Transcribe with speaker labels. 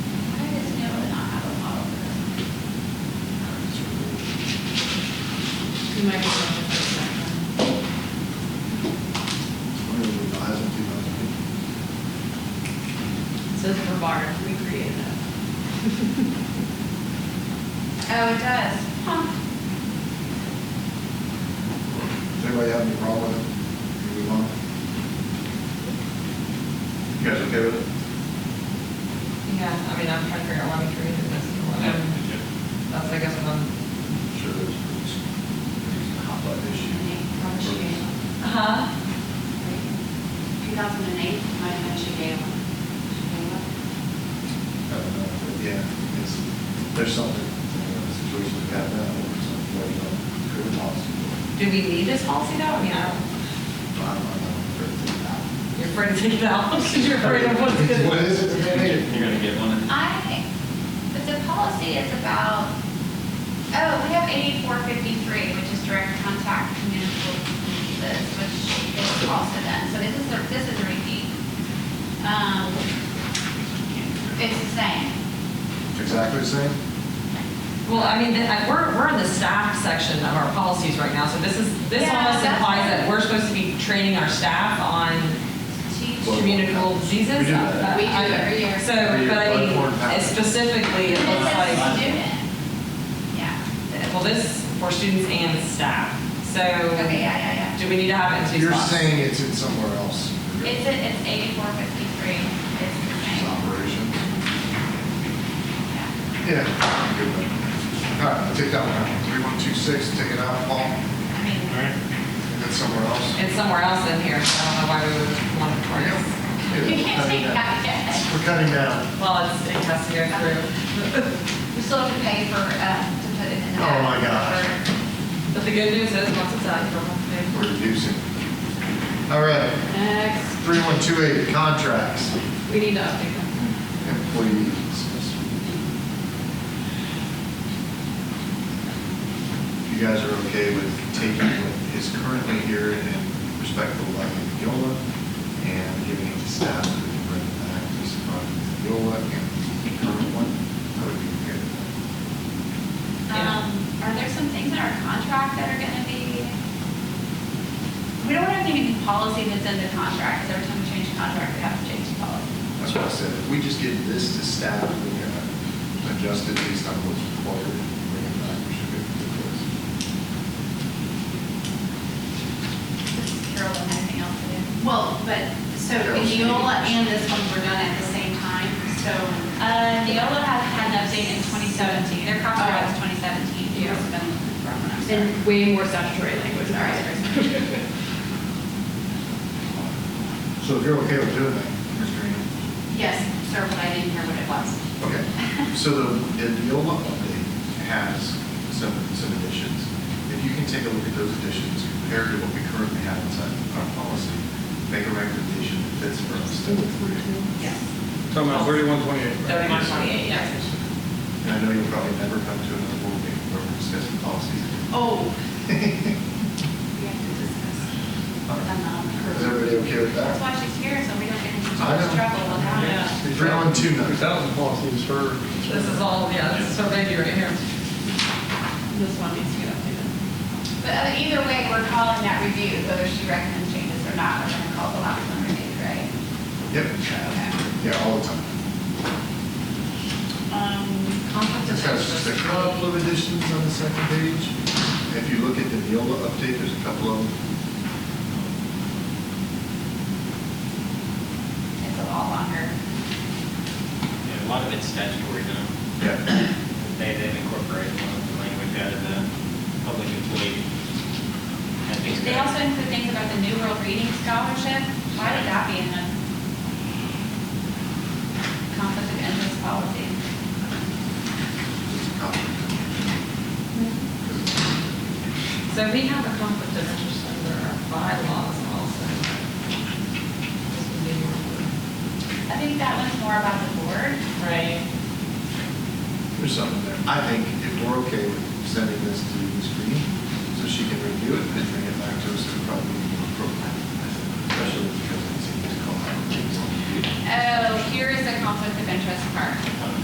Speaker 1: Oh, it does. Huh.
Speaker 2: Does anybody have any problem with it? Move on. You guys okay with it?
Speaker 3: Yeah, I mean, I'm trying to figure out why we created this. and what I'm- That's, I guess, what I'm.
Speaker 2: Sure, there's, there's a hot button issue.
Speaker 3: Huh?
Speaker 4: 2008, my friend Shigella.
Speaker 2: Uh, Yeah, it's, there's something, uh, situation like that now, or something like that, could have lost.
Speaker 3: Do we need this policy though? I mean, I don't,
Speaker 2: I don't know.
Speaker 3: you're afraid to take it out, because you're afraid of what's gonna.
Speaker 2: What is it that they need?
Speaker 5: You're gonna get one.
Speaker 1: I, but the policy is about, oh, we have eighty-four fifty-three, which is direct contact communicable diseases, which is also done, so this is, a- this is a repeat. Um, it's the same.
Speaker 2: Exactly the same?
Speaker 3: Well, I mean, the- I- we're, we're in the staff section of our policies right now, so this is, this
Speaker 1: Yeah,
Speaker 3: almost
Speaker 1: that's-
Speaker 3: implies that we're supposed to be training our staff on
Speaker 1: Teach-
Speaker 2: Well,
Speaker 3: communicable diseases.
Speaker 2: we do that.
Speaker 4: We do
Speaker 3: I- I-
Speaker 4: every year.
Speaker 3: So,
Speaker 2: Every year,
Speaker 3: but I mean,
Speaker 2: blood-borne pathogens.
Speaker 3: it's specifically,
Speaker 1: This
Speaker 3: it
Speaker 1: is
Speaker 3: looks
Speaker 1: a
Speaker 3: like,
Speaker 1: student. Yeah. the-
Speaker 3: well, this for students and staff, so.
Speaker 1: Okay, yeah, yeah, yeah.
Speaker 3: Do we need to have it in two
Speaker 2: You're
Speaker 3: spots?
Speaker 2: saying it's in somewhere else.
Speaker 1: It's, a- it's eighty-four fifty-three, it's the
Speaker 2: It's
Speaker 1: same,
Speaker 2: operations.
Speaker 1: yeah.
Speaker 2: Yeah. Good one. All right, I'll take that one out. Three, one, two, six, take it out, Paul, and
Speaker 1: I mean,
Speaker 2: then somewhere else.
Speaker 3: It's somewhere else in here, so I don't know why we would want it toward
Speaker 2: There you
Speaker 3: us.
Speaker 2: go.
Speaker 1: you can't take
Speaker 2: Yeah.
Speaker 1: that yet.
Speaker 2: We're cutting down.
Speaker 3: Well, it's, it has to go through.
Speaker 1: We still have to pay for, uh, to put it in. the-
Speaker 2: Oh, my gosh.
Speaker 3: But the good news is, once it's out, you don't have to pay for it.
Speaker 2: We're reducing. All right,
Speaker 4: Next.
Speaker 2: three, one, two, eight, contracts,
Speaker 3: We need to update them.
Speaker 2: employees. If You guys are okay with taking what is currently here and respectful like Yola and giving it to staff to bring it back to some of Yola and the current one? I would be okay with that.
Speaker 3: Yeah.
Speaker 1: Um, are there some things in our contract that are gonna be? We don't have any policy that's in the contract, 'cause every time we change the contract, we have to change the policy.
Speaker 2: That's what I said, if we just give this to staff, and we uh, adjust it based on what's required, and bring it back, we should be able to do this.
Speaker 1: Carol, do anything else to do?
Speaker 4: Well, but, so
Speaker 2: Carol's
Speaker 4: Neola
Speaker 2: meeting.
Speaker 4: and this one were done at the same time, so.
Speaker 1: Uh, Neola has had an update in twenty seventeen, their contract was
Speaker 4: Oh.
Speaker 1: twenty seventeen.
Speaker 4: Yeah.
Speaker 6: And way more statutory language than ours.
Speaker 2: So if you're okay with doing that, Mr. Ennis?
Speaker 4: Yes, sir, but I didn't hear what it was.
Speaker 2: Okay, so the, the Neola update has some, some additions. If you can take a look at those additions compared to what we currently have inside our policy, make a recommendation that fits for us.
Speaker 4: Yes.
Speaker 7: Talking about thirty-one twenty-eight.
Speaker 3: Thirty-one twenty-eight, yes.
Speaker 2: And I know you'll probably never come to another board meeting where we're discussing policies.
Speaker 4: Oh. We have to discuss.
Speaker 2: All right. Is
Speaker 4: um,
Speaker 2: everybody okay with
Speaker 1: That's
Speaker 2: that?
Speaker 1: why she's here, so we don't get into too
Speaker 2: I
Speaker 1: much
Speaker 2: know.
Speaker 1: trouble with
Speaker 3: Yeah.
Speaker 1: that.
Speaker 2: Three, one, two, nine.
Speaker 7: Three thousand policies for.
Speaker 3: This is all, yeah, this is so baby right here.
Speaker 6: This one needs to get updated.
Speaker 1: But uh, either way, we're calling that review, whether she recommends changes or not, we're gonna call the last one review, right?
Speaker 2: Yep. Yeah, all the time.
Speaker 4: Um,
Speaker 3: Conflict of
Speaker 2: It's got just a
Speaker 3: interest.
Speaker 2: couple of additions on the second page. If you look at the Neola update, there's a couple of them.
Speaker 1: It's a lot longer.
Speaker 5: Yeah, a lot of it's statutory, though.
Speaker 2: Yeah.
Speaker 5: They, they've incorporated a lot of the language out of the public employee. I think
Speaker 1: They also include things about the New World Reading Scholarship. Why did that be in the conflict of interest policy?
Speaker 2: There's a couple.
Speaker 3: So we have a conflict of interest under our bylaws also. This would be more-
Speaker 1: I think that one's more about the board.
Speaker 3: Right.
Speaker 2: There's something there. I think if we're okay with sending this to the screen, so she can review it and bring it back to us, it would probably be more appropriate. Especially because it seems to call out things on the
Speaker 1: Oh, here is the conflict of interest part.